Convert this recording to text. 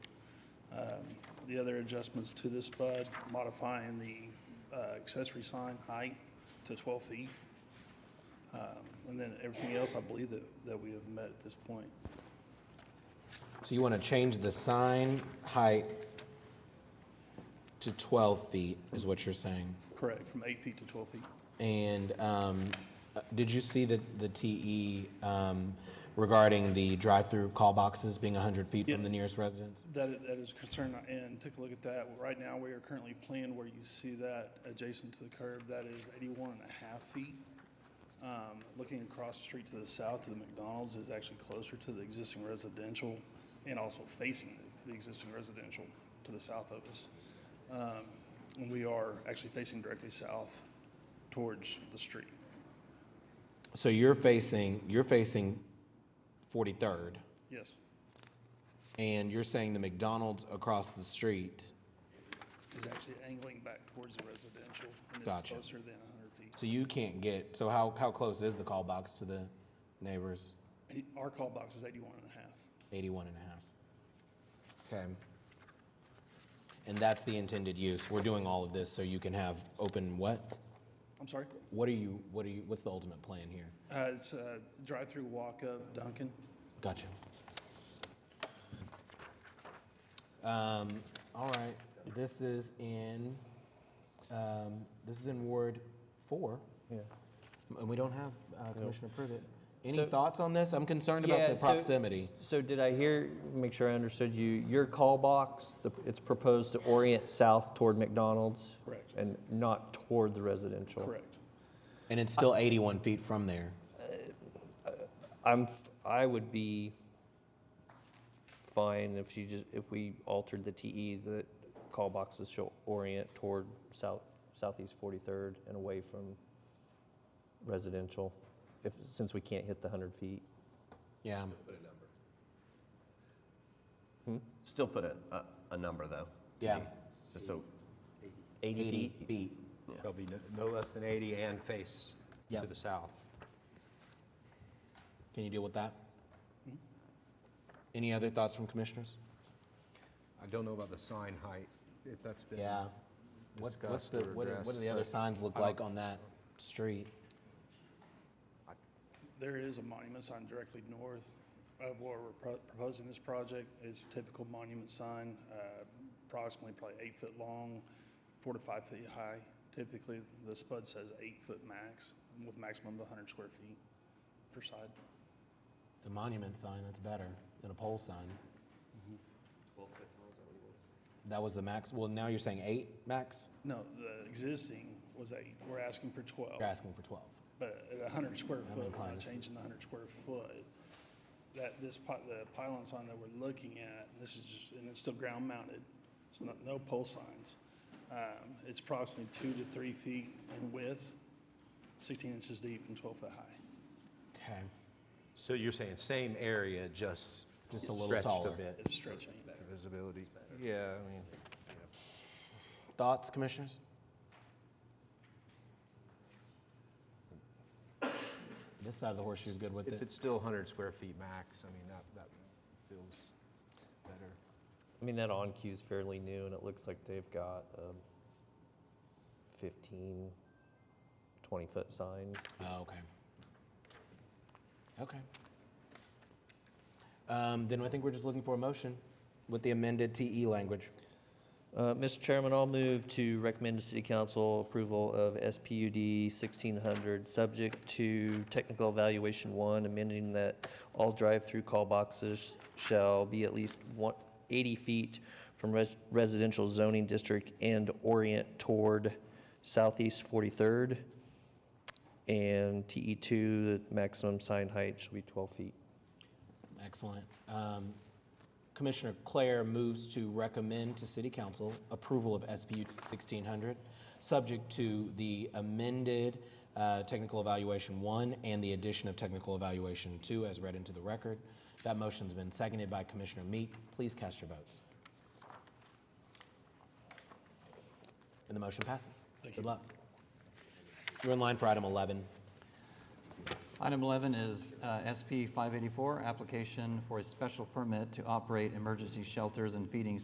the other adjustments to this bud, modifying the uh, accessory sign height to 12 feet. Um, And then everything else, I believe that, that we have met at this point. So you want to change the sign height to 12 feet, is what you're saying? Correct, from eight feet to 12 feet. And um, uh, did you see the, the TE um, regarding the drive-through call boxes being 100 feet from Yeah. the nearest residence? That, i- that is concerned, and take a look at that. Right now, we are currently planned where you see that adjacent to the curb, that is 81 and a half feet. Um, Looking across the street to the south to the McDonald's is actually closer to the existing residential and also facing the- the existing residential to the south of us. Um, And we are actually facing directly south towards the street. So you're facing, you're facing 43rd, Yes, and you're saying the McDonald's across the street. is actually angling back towards the residential and it's Gotcha. closer than 100 feet. So you can't get, so how, how close is the call box to the neighbors? And Our call box is 81 and a half. 81 and a half. Okay. And that's the intended use. We're doing all of this so you can have open what? I'm sorry? What are you, what are you, what's the ultimate plan here? Uh, It's a drive-through walk-up Dunkin'. Gotcha. Um, all right, this is in, um, this is in Ward four, Yeah. and we don't have uh, Commissioner Privet. Any So- thoughts on this? I'm concerned about Yeah, the so- proximity. So did I hear, make sure I understood you, your call box, the- it's proposed to orient south toward McDonald's? Correct. And not toward the residential? Correct. And it's still 81 feet from there. I'm, f- I would be fine if you just, if we altered the TE, that call boxes shall orient toward south, southeast 43rd and away from residential, if, since we can't hit the 100 feet. Yeah. Still put a, a, a number though. Yeah. Just so, 80 feet? feet. Shall be no- no less than 80 and face Yeah. to the south. Can you deal with that? Any other thoughts from commissioners? I don't know about the sign height, if that's been Yeah. What, what's discussed the, or what do- addressed. what do the other but signs look I don't- like on that street? There is a monument sign directly north of where we're pro- proposing this project. It's a typical monument sign, uh, approximately probably eight foot long, four to five feet high. Typically, the spud says eight foot max, with maximum of 100 square feet per side. It's a monument sign, that's better than a pole sign. Mm-hmm. That was the max, well, now you're saying eight max? No, the existing was eight. We're asking for 12. Oh. You're asking for 12. But at 100 square I'm foot, we're inclined not to s- changing the 100 square foot. That, this, pi- the pylon sign that we're looking at, this is, just- and it's still ground mounted, it's not, no pole signs. Um, It's approximately two to three feet in width, 16 inches deep and 12 foot high. Okay, So you're saying same area, just Just a little stretched a taller. bit, It's stretching. visibility. Yeah, I mean, thoughts, commissioners? This side of the horseshoe's good with if it. it's still 100 square feet max, I mean, that, that feels better. I mean, that on cue is fairly new, and it looks like they've got a 15, 20-foot sign. Oh, okay. Okay. Um, then I think we're just looking for a motion with the amended TE language. Uh, Mr. Chairman, I'll move to recommend to City Council approval of SPUD 1600, subject to technical evaluation one, amending that all drive-through call boxes shall be at least one- 80 feet from res- residential zoning district and orient toward southeast 43rd. And TE2, the maximum sign height shall be 12 feet. Excellent. Um, Commissioner Claire moves to recommend to City Council approval of SPU 1600, subject to the amended uh, Technical Evaluation 1 and the addition of Technical Evaluation 2 as read into the record. That motion's been seconded by Commissioner Meek. Please cast your votes. And the motion passes. Good luck. You're in line for item 11. Item 11 is uh, SP 584, application for a special permit to operate emergency shelters and feeding